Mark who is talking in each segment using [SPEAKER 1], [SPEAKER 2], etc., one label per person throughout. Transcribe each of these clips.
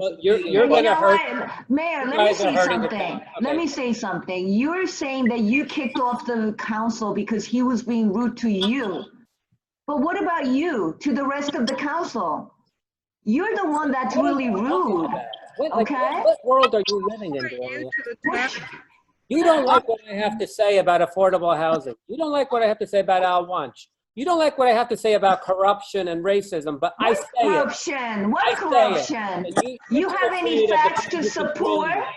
[SPEAKER 1] Well, you're-
[SPEAKER 2] meeting.
[SPEAKER 1] you're
[SPEAKER 2] Well,
[SPEAKER 1] gonna
[SPEAKER 3] You know
[SPEAKER 1] hurt-
[SPEAKER 3] what? Mayor, let me
[SPEAKER 1] guys are
[SPEAKER 3] say
[SPEAKER 1] hurting the
[SPEAKER 3] something.
[SPEAKER 1] town.
[SPEAKER 3] Let
[SPEAKER 1] Okay.
[SPEAKER 3] me say something. You're saying that you kicked off the council because he was being rude to you. But what about you, to the rest of the council? You're the one that's really rude.
[SPEAKER 1] What, like,
[SPEAKER 3] Okay.
[SPEAKER 1] what, what world are you living in, Gloria? You don't like what I have to say about affordable housing. You don't like what I have to say about Al Wunsch. You don't like what I have to say about corruption and racism, but I say it.
[SPEAKER 3] Corruption, what
[SPEAKER 1] I say
[SPEAKER 3] corruption?
[SPEAKER 1] And
[SPEAKER 3] You have
[SPEAKER 1] you're afraid
[SPEAKER 3] any
[SPEAKER 1] of the
[SPEAKER 3] facts to
[SPEAKER 1] people who
[SPEAKER 3] support?
[SPEAKER 1] control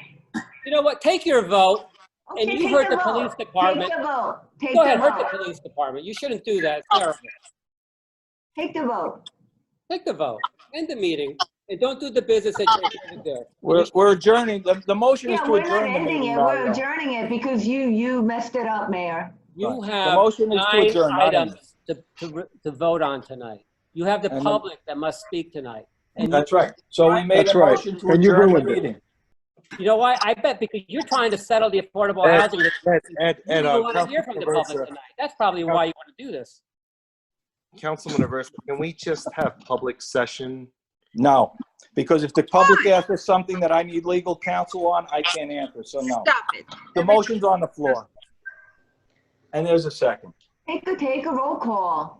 [SPEAKER 1] You know what? Take your vote.
[SPEAKER 3] Okay,
[SPEAKER 1] you
[SPEAKER 3] take
[SPEAKER 1] heard the
[SPEAKER 3] vote.
[SPEAKER 1] police department.
[SPEAKER 3] Take the vote, take
[SPEAKER 1] Go ahead,
[SPEAKER 3] the
[SPEAKER 1] hurt
[SPEAKER 3] vote,
[SPEAKER 1] the police department. You shouldn't do that. It's terrible.
[SPEAKER 3] take the vote.
[SPEAKER 1] Take the vote. End the meeting and don't do the business that you're going to do.
[SPEAKER 2] We're, we're adjourning. The, the motion is
[SPEAKER 3] Yeah,
[SPEAKER 2] to
[SPEAKER 3] we're not
[SPEAKER 2] adjourn the
[SPEAKER 3] ending
[SPEAKER 2] meeting,
[SPEAKER 3] it, we're
[SPEAKER 2] Mario.
[SPEAKER 3] adjourning it because you, you messed it up, Mayor.
[SPEAKER 1] You
[SPEAKER 2] Right. The
[SPEAKER 1] have
[SPEAKER 2] motion is to
[SPEAKER 1] nine
[SPEAKER 2] adjourn, not end.
[SPEAKER 1] items to, to, re- to vote on tonight. You have the
[SPEAKER 2] And the-
[SPEAKER 1] public that must speak tonight. And
[SPEAKER 2] That's right. So we made
[SPEAKER 4] That's
[SPEAKER 2] a
[SPEAKER 4] right.
[SPEAKER 2] motion to
[SPEAKER 4] And you
[SPEAKER 2] adjourn the
[SPEAKER 4] ruined it.
[SPEAKER 2] meeting.
[SPEAKER 1] you know why? I bet because you're trying to settle the affordable
[SPEAKER 4] Ed,
[SPEAKER 1] housing.
[SPEAKER 4] Ed, Ed,
[SPEAKER 1] You
[SPEAKER 4] Ed,
[SPEAKER 1] don't
[SPEAKER 4] uh,
[SPEAKER 1] want to hear from
[SPEAKER 4] Councilman
[SPEAKER 1] the public
[SPEAKER 4] Aversa,
[SPEAKER 1] tonight. That's probably why you want to do this.
[SPEAKER 5] Councilman Aversa, can we just have public session?
[SPEAKER 2] No, because if the public asks for something that I need legal counsel on, I can't answer, so no.
[SPEAKER 6] Stop it.
[SPEAKER 2] The motion's on the floor. And there's a second.
[SPEAKER 3] Take a, take a roll call.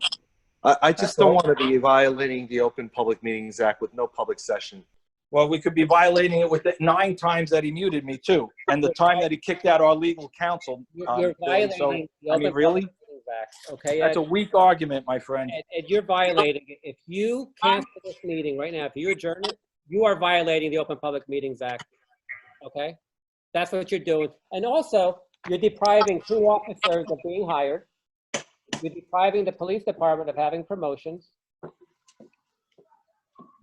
[SPEAKER 5] I, I just don't want to be violating the Open Public Meetings Act with no public session.
[SPEAKER 2] Well, we could be violating it with the nine times that he muted me too, and the time that he kicked out our legal counsel.
[SPEAKER 1] You're
[SPEAKER 2] um,
[SPEAKER 1] you're
[SPEAKER 2] thing. So
[SPEAKER 1] violating the
[SPEAKER 2] I
[SPEAKER 1] open.
[SPEAKER 2] mean, really?
[SPEAKER 1] Public Meetings Act, Okay, Ed,
[SPEAKER 2] That's a weak argument, my friend.
[SPEAKER 1] Ed, Ed, you're violating, it. if you cancel this meeting right now, if you adjourn it, you are violating the Open Public Meetings Act, okay? That's what you're doing. And also, you're depriving two officers of being hired. You're depriving the police department of having promotions.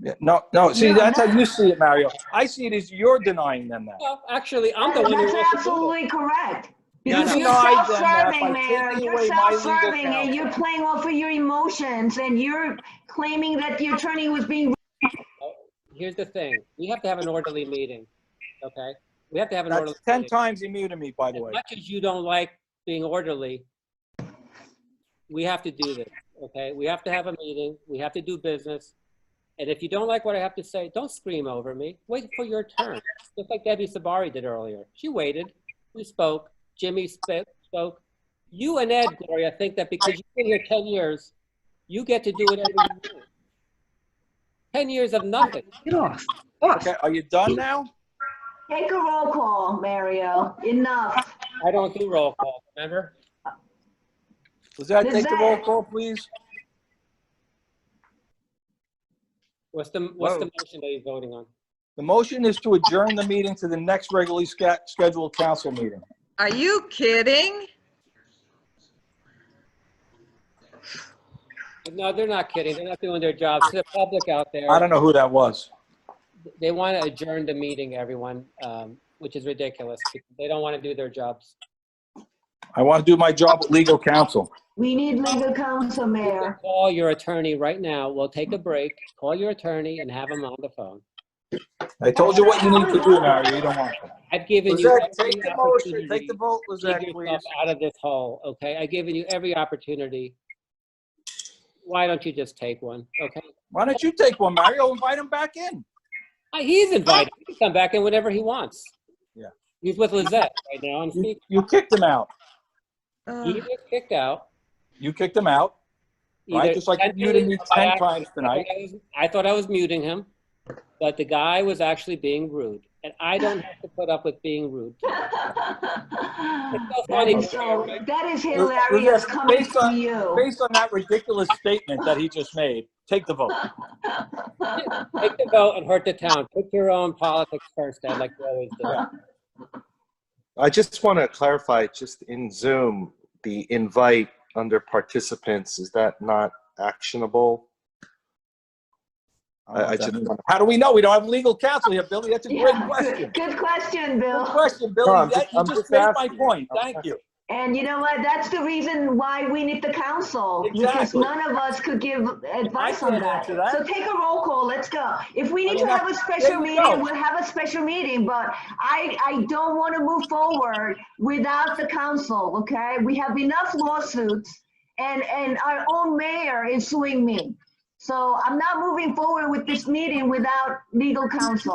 [SPEAKER 2] Yeah, No, no, see,
[SPEAKER 3] No,
[SPEAKER 2] that's how
[SPEAKER 3] no.
[SPEAKER 2] you see it, Mario. I see it as you're denying them that.
[SPEAKER 1] Well, actually, I'm the one who
[SPEAKER 3] That's
[SPEAKER 1] wants to do it.
[SPEAKER 3] absolutely correct.
[SPEAKER 2] You
[SPEAKER 3] Because you're
[SPEAKER 2] denied them that by
[SPEAKER 3] self-serving, Mayor,
[SPEAKER 2] taking
[SPEAKER 3] you're
[SPEAKER 2] away my legal
[SPEAKER 3] self-serving and you're playing off of your emotions and you're claiming that the attorney was being,
[SPEAKER 1] Here's the thing, we have to have an orderly meeting, okay? We have to have an
[SPEAKER 2] That's
[SPEAKER 1] orderly.
[SPEAKER 2] 10
[SPEAKER 1] meeting.
[SPEAKER 2] times he muted me, by the
[SPEAKER 1] As
[SPEAKER 2] way.
[SPEAKER 1] much as you don't like being orderly, we have to do this, okay? We have to have a meeting, we have to do business. And if you don't like what I have to say, don't scream over me. Wait for your turn, just like Debbie Sabari did earlier. She waited, we spoke, Jimmy sp- spoke. You and Ed, Gloria, think that because you've been here 10 years, you get to do it every year. 10 years of nothing.
[SPEAKER 6] Get off. Off.
[SPEAKER 2] Okay, are you done now?
[SPEAKER 3] take a roll call, Mario, enough.
[SPEAKER 1] I don't do roll call, remember?
[SPEAKER 2] Does that
[SPEAKER 3] Does
[SPEAKER 2] take the
[SPEAKER 3] that-
[SPEAKER 2] roll call, please?
[SPEAKER 1] What's the, what's the motion that you're voting on?
[SPEAKER 2] The motion is to adjourn the meeting to the next regularly sca- scheduled council meeting.
[SPEAKER 6] Are you kidding?
[SPEAKER 1] No, they're not kidding. They're not doing their jobs. To the public out there,
[SPEAKER 2] I don't know who that was.
[SPEAKER 1] they want to adjourn the meeting, everyone, um, which is ridiculous. They don't want to do their jobs.
[SPEAKER 2] I want to do my job with legal counsel.
[SPEAKER 3] We need legal counsel, Mayor.
[SPEAKER 1] Call your attorney right now. We'll take a break. Call your attorney and have him on the phone.
[SPEAKER 2] I told you what you need to do, Mario, you don't want to.
[SPEAKER 1] I've given you
[SPEAKER 2] Lizette,
[SPEAKER 1] every
[SPEAKER 2] take the motion, take
[SPEAKER 1] opportunity
[SPEAKER 2] the vote,
[SPEAKER 1] to get
[SPEAKER 2] Lizette, please.
[SPEAKER 1] yourself out of this hole, okay? I've given you every opportunity. Why don't you just take one, okay?
[SPEAKER 2] Why don't you take one, Mario, invite him back in?
[SPEAKER 1] Uh, He's invited. He can come back in whenever he wants.
[SPEAKER 2] Yeah.
[SPEAKER 1] He's with Lizette right now on
[SPEAKER 2] You
[SPEAKER 1] speaker.
[SPEAKER 2] you kicked him out.
[SPEAKER 1] He
[SPEAKER 6] Ugh.
[SPEAKER 1] was kicked out.
[SPEAKER 2] You kicked him out, right?
[SPEAKER 1] either
[SPEAKER 2] Just like you muted
[SPEAKER 1] intentionally
[SPEAKER 2] me
[SPEAKER 1] or by
[SPEAKER 2] 10
[SPEAKER 1] accident.
[SPEAKER 2] times tonight.
[SPEAKER 1] I was- I thought I was muting him, but the guy was actually being rude, and I don't have to put up with being rude. so
[SPEAKER 3] That
[SPEAKER 1] funny.
[SPEAKER 3] is so, that is
[SPEAKER 2] Well, well,
[SPEAKER 3] hilarious
[SPEAKER 2] yes,
[SPEAKER 3] coming
[SPEAKER 2] based
[SPEAKER 3] from
[SPEAKER 2] on-
[SPEAKER 3] you.
[SPEAKER 2] Based on that ridiculous statement that he just made, take the vote.
[SPEAKER 1] Take the vote and hurt the town. Put your own politics first, Ed, like you always do.
[SPEAKER 5] I just want to clarify, just in Zoom, the invite under participants, is that not actionable? I- I just-
[SPEAKER 2] How do we know? We don't have legal counsel here, Billy. That's a great
[SPEAKER 3] Yeah,
[SPEAKER 2] question.
[SPEAKER 3] Good question,
[SPEAKER 2] Good
[SPEAKER 3] Bill.
[SPEAKER 2] question, Billy.
[SPEAKER 5] No, I'm
[SPEAKER 2] That-
[SPEAKER 5] just-
[SPEAKER 2] You
[SPEAKER 5] I'm
[SPEAKER 2] just
[SPEAKER 5] just
[SPEAKER 2] made my
[SPEAKER 5] asking.
[SPEAKER 2] point.
[SPEAKER 5] I'm
[SPEAKER 2] Thank you.
[SPEAKER 3] And you know what? That's the reason why we need the council, because
[SPEAKER 2] Exactly.
[SPEAKER 3] none of us could give advice
[SPEAKER 2] I
[SPEAKER 3] on
[SPEAKER 2] can't
[SPEAKER 3] that.
[SPEAKER 2] answer that.
[SPEAKER 3] So take a roll call, let's go. If we need
[SPEAKER 2] I
[SPEAKER 3] to
[SPEAKER 2] mean,
[SPEAKER 3] have a
[SPEAKER 2] I-
[SPEAKER 3] special
[SPEAKER 2] there we
[SPEAKER 3] meeting,
[SPEAKER 2] go.
[SPEAKER 3] we'll have a special meeting, but I, I don't want to move forward without the council, okay? We have enough lawsuits and, and our own mayor is suing me. So I'm not moving forward with this meeting without legal counsel.